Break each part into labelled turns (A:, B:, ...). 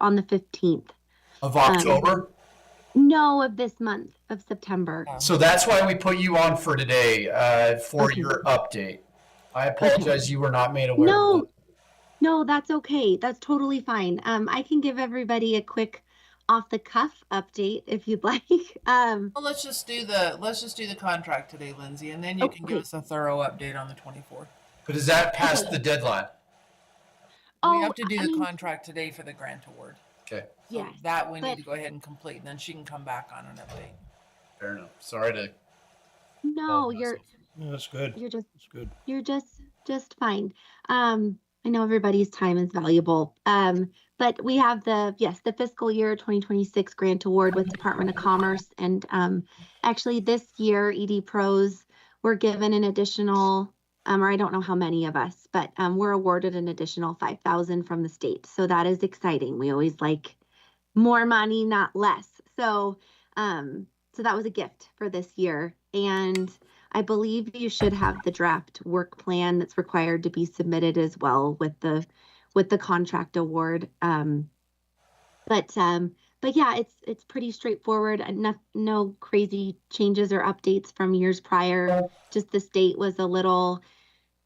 A: on the 15th.
B: of
A: Um,
B: October.
A: No, of this month, of September.
B: So that's why we put you on for today, uh, for
A: Okay.
B: your update. I apologize, you were not made aware. of
A: No, no, that's okay. That's totally fine. Um, I can give everybody a quick off the cuff update if you'd like. Um,
C: Well, let's just do the let's just do the contract today, Lindsay, and then you can give
A: Okay.
C: us a thorough update on the twenty fourth.
B: that. But is that past the deadline?
C: we
A: oh,
C: have to do
A: I
C: the oh,
A: mean,
C: contract today for the grant award. So
A: yes.
C: that we
A: but-
C: need to go ahead and complete, and then she can come back on an update.
B: Fair enough. Sorry to.
C: oh,
A: No,
B: apologize.
A: you're
D: Yeah, that's good.
A: you're just
D: That's good.
A: you're just just fine. Um, I know everybody's time is valuable. Um, but we have the yes, the fiscal year 2026 grant award with Department of Commerce, and um, actually this year ED Pros were given an additional, um, or I don't know how many of us, but um, we're awarded an additional 5,000 from the state. So that is exciting. We always like more money, not less. So um, so that was a gift for this year, and I believe you should have the draft work plan that's required to be submitted as well with the with the contract award. Um, but um, but yeah, it's it's pretty straightforward. and No, no crazy changes or updates from years prior. Just the state was a little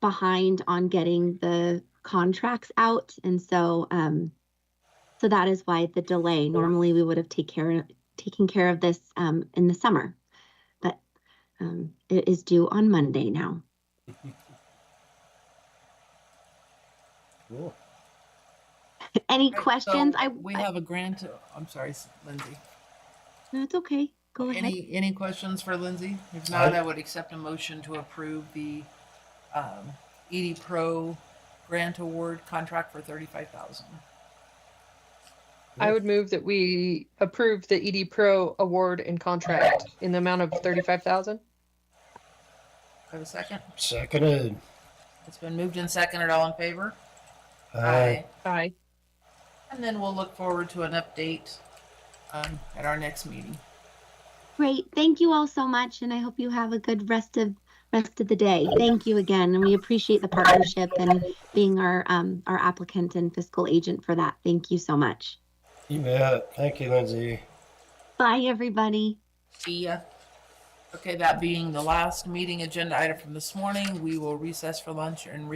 A: behind on getting the contracts out, and so um, so that is why the delay. Normally, we would have take care taken care of this um, in the summer, but um, it is due on Monday now.
D: Cool.
A: Any
C: Right, so
A: questions? I,
C: we
A: I-
C: have a grant. I'm sorry, S- Lindsay.
A: no, it's okay. Go ahead.
C: Any any questions for Lindsay? If not, I would accept a motion to approve the um, ED Pro grant award contract for thirty five thousand.
E: I would move that we approve the ED Pro award and contract in the amount of thirty-five thousand.
C: Have a second.
D: Seconded.
C: It's been moved and seconded. All in favor?
D: Aye.
E: Aye.
C: And then we'll look forward to an update um, at our next meeting.
A: Great. Thank you all so much, and I hope you have a good rest of rest of the day. Thank you again, and we appreciate the partnership and being our um, our applicant and fiscal agent for that. Thank you so much.
D: You bet. Thank you, Lindsay.
A: Bye, everybody.
C: See ya. Okay, that being the last meeting agenda item from this morning, we will recess for lunch and